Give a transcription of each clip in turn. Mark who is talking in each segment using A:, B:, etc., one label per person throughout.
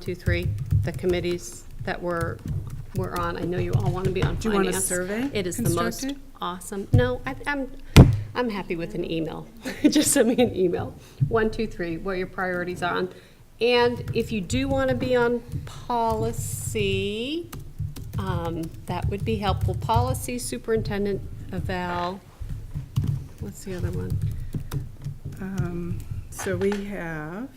A: two, three, the committees that we're, we're on. I know you all want to be on finance.
B: you want a survey
A: It is the most
B: constructed?
A: awesome, no, I- I'm, I'm happy with an email. Just send me an email, one, two, three, what your priorities are on. And if you do want to be on policy, um, that would be helpful. Policy, superintendent, eval, what's the other one?
B: Um, So we have,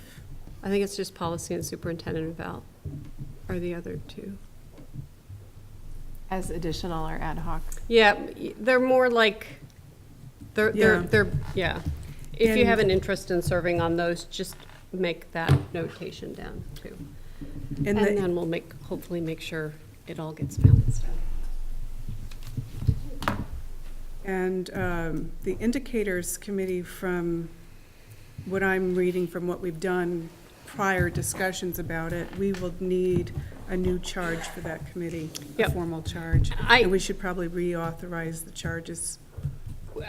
A: I think it's just policy and superintendent eval are the other two.
C: As additional or ad hoc?
A: Yeah, y- they're more like, they're, they're,
B: Yeah.
A: they're, yeah. If you
B: And-
A: have an interest in serving on those, just make that notation down too.
B: and
A: And
B: the,
A: then we'll make, hopefully make sure it all gets balanced out.
B: and um, the indicators committee from what I'm reading from what we've done prior discussions about it, we will need a new charge for that committee, a
A: Yep.
B: formal charge.
A: I-
B: And we should probably reauthorize the charges.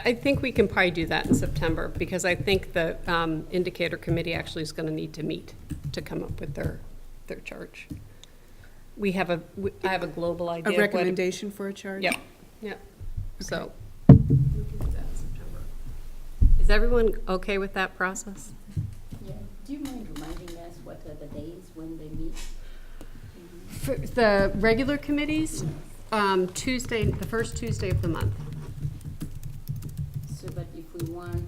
A: I think we can probably do that in September because I think the um, indicator committee actually is going to need to meet to come up with their, their charge. We have a, we- I have a global
B: A
A: idea of what.
B: recommendation for a charge?
A: Yep, yep, so. we can do that in September. Is everyone okay with that process?
D: Yeah, do you mind reminding us what are the days when they meet?
A: For the regular committees, um, Tuesday, the first Tuesday of the month.
D: So that if we want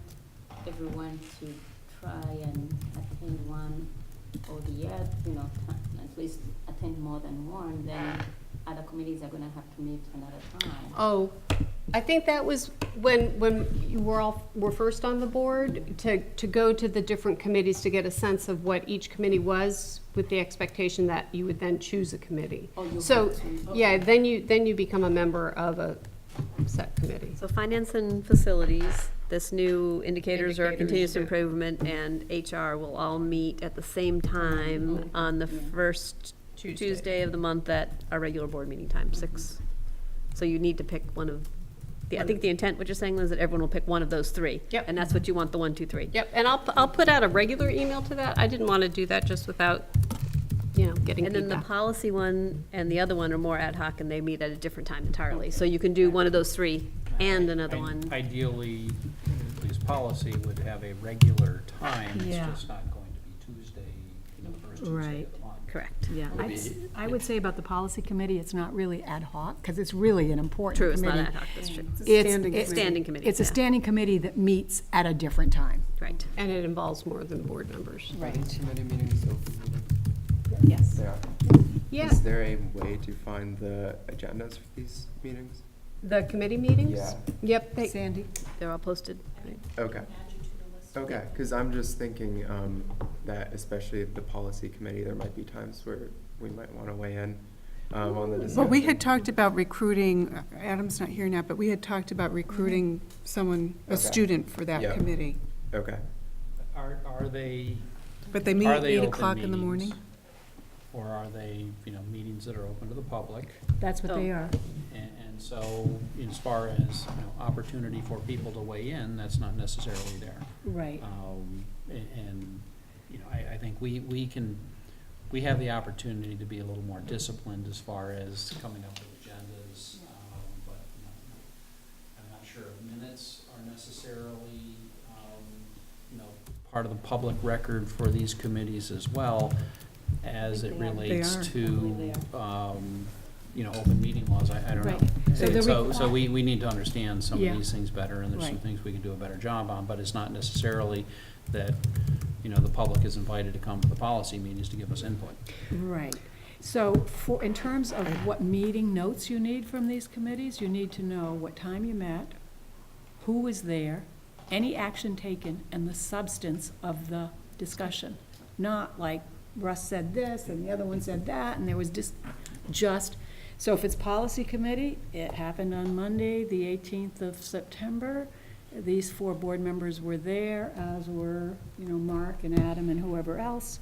D: everyone to try and attend one or the other, you know, t- at least attend more than one, then other committees are gonna have to meet another time.
A: Oh, I think that was when, when you were all, were first on the board, to, to go to the different committees to get a sense of what each committee was, with the expectation that you would then choose a committee.
D: Oh, you
A: So,
D: have to,
A: yeah, then you, then you become a member of a set committee.
E: So finance and facilities, this new indicators or
A: Indicators,
E: continuous
A: yeah.
E: improvement and HR will all meet at the same time on the first
A: Tuesday.
E: Tuesday of the month at our regular board meeting time, six. So you need to pick one of, the I think the intent, what you're saying is that everyone will pick one of those three.
A: Yep.
E: And that's what you want, the one, two, three.
A: Yep, and I'll, I'll put out a regular email to that. I didn't want to do that just without, you know, getting
E: And then the
A: feedback.
E: policy one and the other one are more ad hoc and they meet at a different time entirely. So you can do one of those three and another
F: I-
E: one.
F: Ideally, at least policy would have a regular time, it's
G: Yeah.
F: just not going to be Tuesday, you know, first Tuesday of the
G: Right.
F: month.
E: Correct.
G: Yeah,
F: Would
G: I'd
F: be-
G: s- I would say about the policy committee, it's not really ad hoc, because it's really an important
E: True, it's
G: committee.
E: not ad hoc, that's true.
B: It's a
G: It's-
B: standing
G: it's
B: committee.
E: Standing committee.
G: It's a
E: yeah.
G: standing committee that meets at a different time.
E: Right.
A: And it involves more than board members.
G: Right.
H: Committee meetings open meeting.
A: Yes.
H: They are.
A: Yeah,
H: Is there a way to find the agendas for these meetings?
A: the committee meetings?
H: Yeah.
A: Yep, they-
G: Sandy?
E: They're all posted. right?
H: Okay. Okay, because I'm just thinking um, that especially the policy committee, there might be times where we might want to weigh in um, on the discussion.
B: Well, we had talked about recruiting, uh, Adam's not here now, but we had talked about recruiting someone, a
H: Okay.
B: student for that
H: Yeah.
B: committee.
H: Okay.
F: Are, are they,
B: But they meet
F: are
B: at
F: they
B: eight
F: open
B: o'clock in the morning?
F: meetings? Or are they, you know, meetings that are open to the public?
G: That's what they are.
F: And, and so, as far as, you know, opportunity for people to weigh in, that's not necessarily there.
G: Right.
F: Um, a- And, you know, I, I think we, we can, we have the opportunity to be a little more disciplined as far as coming up with agendas, um, but you know, I'm not sure if minutes are necessarily, um, you know, part of the public record for these committees as well, as it relates
B: are.
F: to, um, you know, open meeting laws, I, I don't know.
B: So the
F: So, so we, we need to understand some
B: Yeah.
F: of these things better, and there's some
B: Right.
F: things we can do a better job on, but it's not necessarily that, you know, the public is invited to come to the policy meetings to give us input.
G: Right. So for, in terms of what meeting notes you need from these committees, you need to know what time you met, who was there, any action taken, and the substance of the discussion. Not like Russ said this, and the other one said that, and there was just, just, so if it's policy committee, it happened on Monday, the eighteenth of September. These four board members were there, as were, you know, Mark and Adam and whoever else.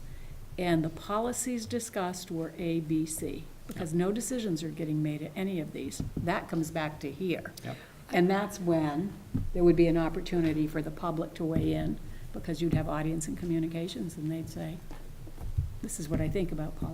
G: And the policies discussed were A, B, C, because no decisions are getting made at any of these. That comes back to here.
F: Yep.
G: And that's when there would be an opportunity for the public to weigh in, because you'd have audience and communications, and they'd say, this is what I think about policy.